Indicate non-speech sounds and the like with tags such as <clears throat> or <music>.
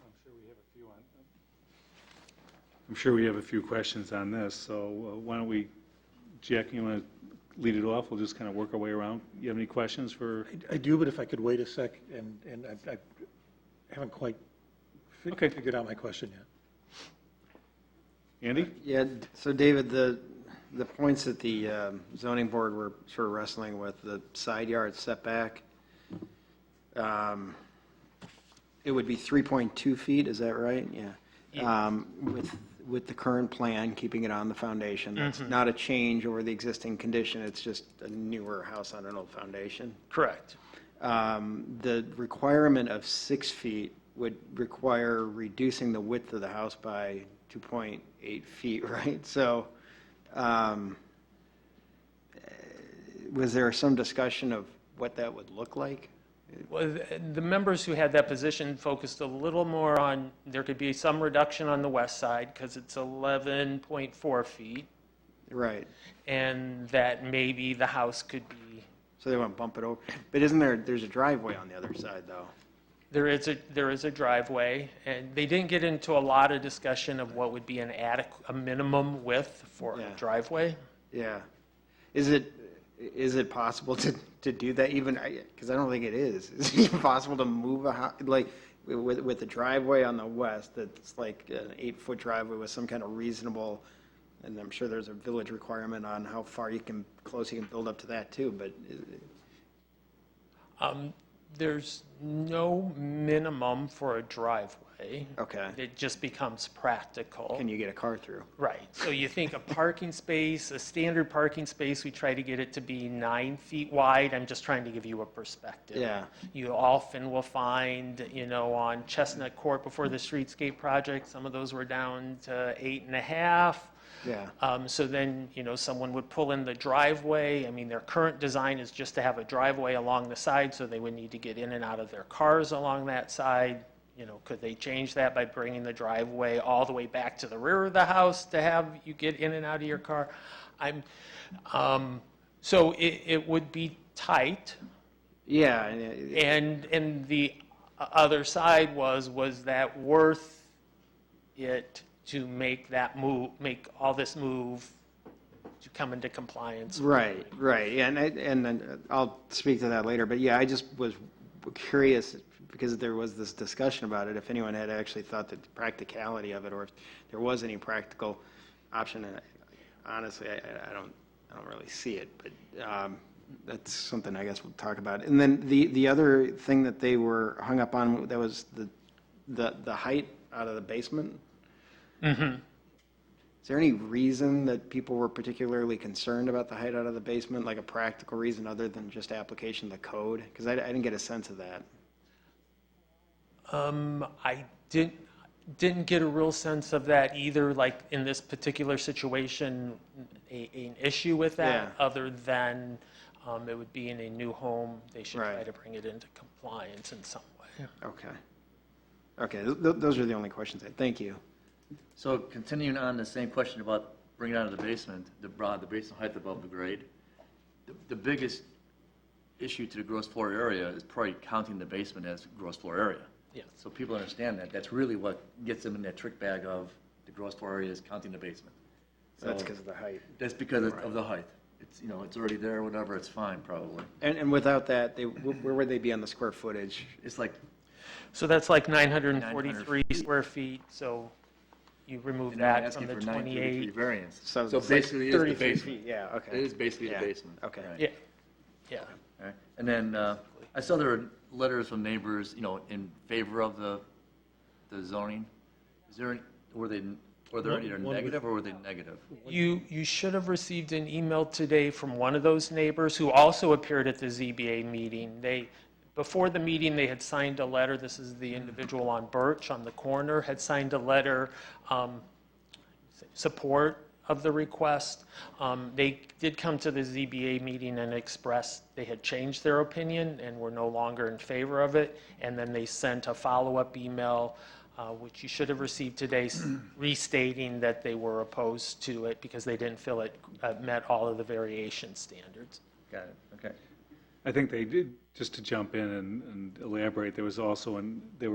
uh, I'm sure we have a few questions on this, so uh, why don't we, Jack, you want to lead it off? We'll just kind of work our way around. You have any questions for, I do, but if I could wait a sec, and, and I- I haven't quite fi- Okay. figured out my question yet. Andy? Yeah, d- so David, the, the points that the um, zoning board were sort of wrestling with, the side yard setback, um, it would be 3.2 feet, is that right? Yeah. Um, With, with the current plan, keeping it on the foundation, that's not a change over the existing condition, it's just a newer house on an old foundation. Correct. Um, The requirement of six feet would require reducing the width of the house by 2.8 feet, <laughs> right? So um, eh, was there some discussion of what that would look like? Well, the- The members who had that position focused a little more on, there could be some reduction on the west side because it's 11.4 feet, Right, and that maybe the house could be, so they want to bump it over. But isn't there, there's a driveway on the other side, though? there is a, there is a driveway, and they didn't get into a lot of discussion of what would be an adequate, a minimum width for a Yeah. driveway. Yeah. Is it, is it possible to, to do that even, because I don't think it is. <laughs> Is it even possible to move a, hou- like, with, with the driveway on the west, that's like an eight-foot driveway with some kind of reasonable, and I'm sure there's a village requirement on how far you can, close you can build up to that too, but uh, i- Um, There's no minimum for a driveway. Okay. It just becomes practical. can you get a car through? Right, so you think a parking space, a standard parking space, we try to get it to be nine feet wide, I'm just trying to give you a perspective. Yeah. You often will find, you know, on Chestnut Court before the streetscape project, some of those were down to eight and a half. Yeah. Um, So then, you know, someone would pull in the driveway. I mean, their current design is just to have a driveway along the side, so they would need to get in and out of their cars along that side. You know, could they change that by bringing the driveway all the way back to the rear of the house to have you get in and out of your car? I'm, um, so it, it would be tight. Yeah, and it- And, and the o- other side was, was that worth it to make that move, make all this move to come into compliance? Right, right, yeah, and I, and then uh, I'll speak to that later, but yeah, I just was curious, because there was this discussion about it, if anyone had actually thought that the practicality of it, or if there was any practical option, and I- honestly, I, I- I don't, I don't really see it, but, um, that's something I guess we'll talk about. And then the, the other thing that they were hung up on, that was the, the, the height out of the basement? Is there any reason that people were particularly concerned about the height out of the basement, like a practical reason other than just application of the code? Because I, I didn't get a sense of that. Um, I didn't, didn't get a real sense of that either, like in this particular situation, a, an issue with that, Yeah. other than, um, it would be in a new home, they should try Right. to bring it into compliance in some way. Okay. Okay, th- th- those are the only questions. I Thank you. So continuing on the same question about bringing it out of the basement, the broad, the basement height above the grade, the, the biggest issue to the gross floor area is probably counting the basement as gross floor area. Yes. So people understand that, that's really what gets them in that trick bag of the gross floor area is counting the basement. So that's So- because of the height. That's because of- of the height. It's, you know, it's already there, whatever, it's fine probably. And, and without that, they, wh- where would they be on the square footage? It's like, So that's like 943 feet. square feet, so you remove and I'm that from asking the for nine thirty feet 28. variance. So it's like basically it is the 33 basement. feet, yeah, okay. It is basically the Yeah, basement. okay. right. Yeah, yeah. All right. And then uh, I saw there were letters from neighbors, you know, in favor of the the zoning. Is there, any- were they, were there either negative or were they negative? You, you should have received an email today from one of those neighbors who also appeared at the ZBA meeting. They, before the meeting, they had signed a letter, this is the individual on Birch on the corner, had signed a letter um, support of the request. Um, They did come to the ZBA meeting and expressed they had changed their opinion and were no longer in favor of it. And then they sent a follow-up email, uh, which you should have received today, s- <clears throat> restating that they were opposed to it because they didn't feel it uh, met all of the variation standards. Got it, okay. I think they did, just to jump in and and elaborate, there was also, an- there